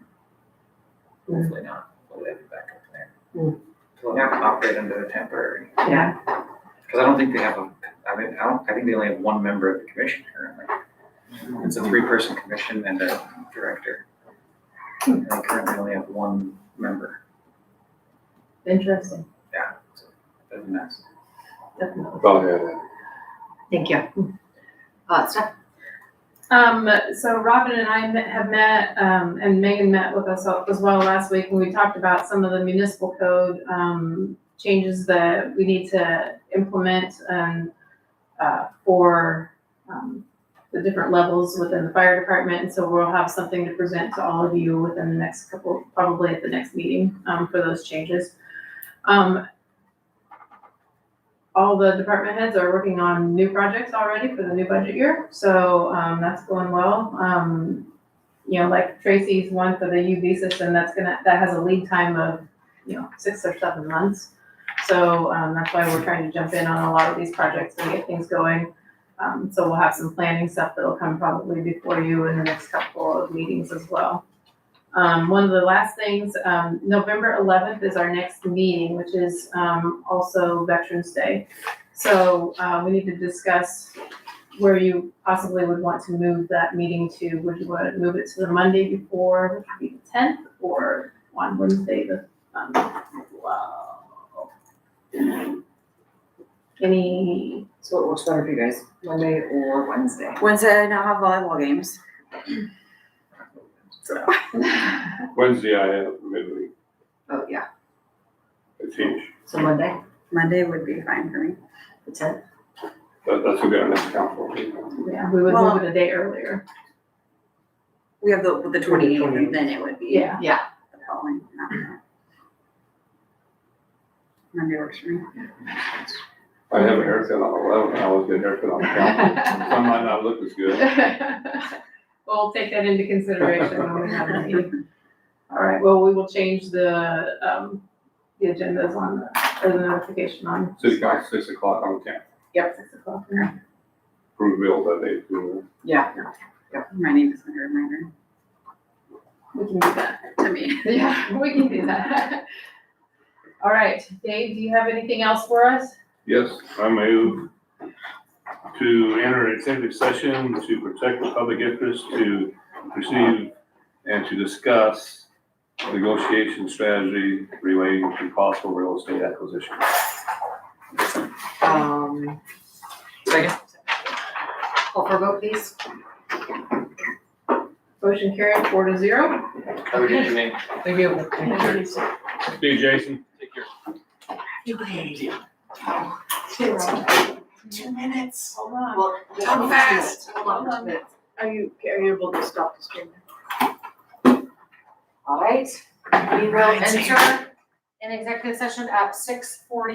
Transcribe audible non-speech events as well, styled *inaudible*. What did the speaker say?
hopefully not, but we have a backup plan. Mm. So they have to operate under the temporary, Yeah, because I don't think they have a, I mean, I don't, I think they only have one member of the commission currently. It's a three-person commission and a director. And they currently only have one member, interesting, so that's a mess. definitely. Oh, yeah, Thank you. Uh, Steph? Um, so Robin and I met, have met, um, and Megan met with us as well last week, and we talked about some of the municipal code, um, changes that we need to implement, um, uh, for, um, the different levels within the fire department, and so we'll have something to present to all of you within the next couple, probably at the next meeting, um, for those changes. Um, all the department heads are working on new projects already for the new budget year, so um, that's going well. Um, you know, like Tracy's one for the UV system, that's gonna that has a lead time of you know six or seven months. So um, that's why we're trying to jump in on a lot of these projects and get things going. Um, so we'll have some planning stuff that'll come probably before you in the next couple of meetings as well. Um, one of the last things, um, November 11th is our next meeting, which is um, also Veterans Day. So, uh, we need to discuss where you possibly would want to move that meeting to. Would you want to move it to the Monday before, which would be the tenth, or on Wednesday, the, um, wow. Any, So what works better for you guys, Monday or Wednesday? Wednesday I now have volleyball games. So yeah. Wednesday I have midweek, oh yeah. I teach, So Monday, Monday would be fine for me. the tenth? that, that's what our next council meeting. yeah, we would Well- move it a day earlier. We have the the twenty eighth and then it would be Yeah. *laughs* Yeah. the following. I don't know. Monday works for me. I have a haircut on eleven, I always get a haircut on the council, I might not look as good. We'll take that into consideration when we have a meeting. All right, well, we will change the, um, the agendas on, the- or the notification on. City council, six o'clock on the tenth, Yep, six o'clock. approve bills that day too. My name is a reminder We can do that. *laughs* to me. Yeah, we can do that. *laughs* All right, Dave, do you have anything else for us? Yes, I move to enter executive session to protect the public interest, to receive and to discuss negotiation strategy relating to possible real estate acquisition. Um, Second? call for a vote, please. Motion carried four to zero. Have a good evening. Thank you. See you, Jason. Take care. Two minutes. Hold on. Talk fast. Hold on. Are you, are you able to stop the stream? All right, we will enter an executive session at six forty.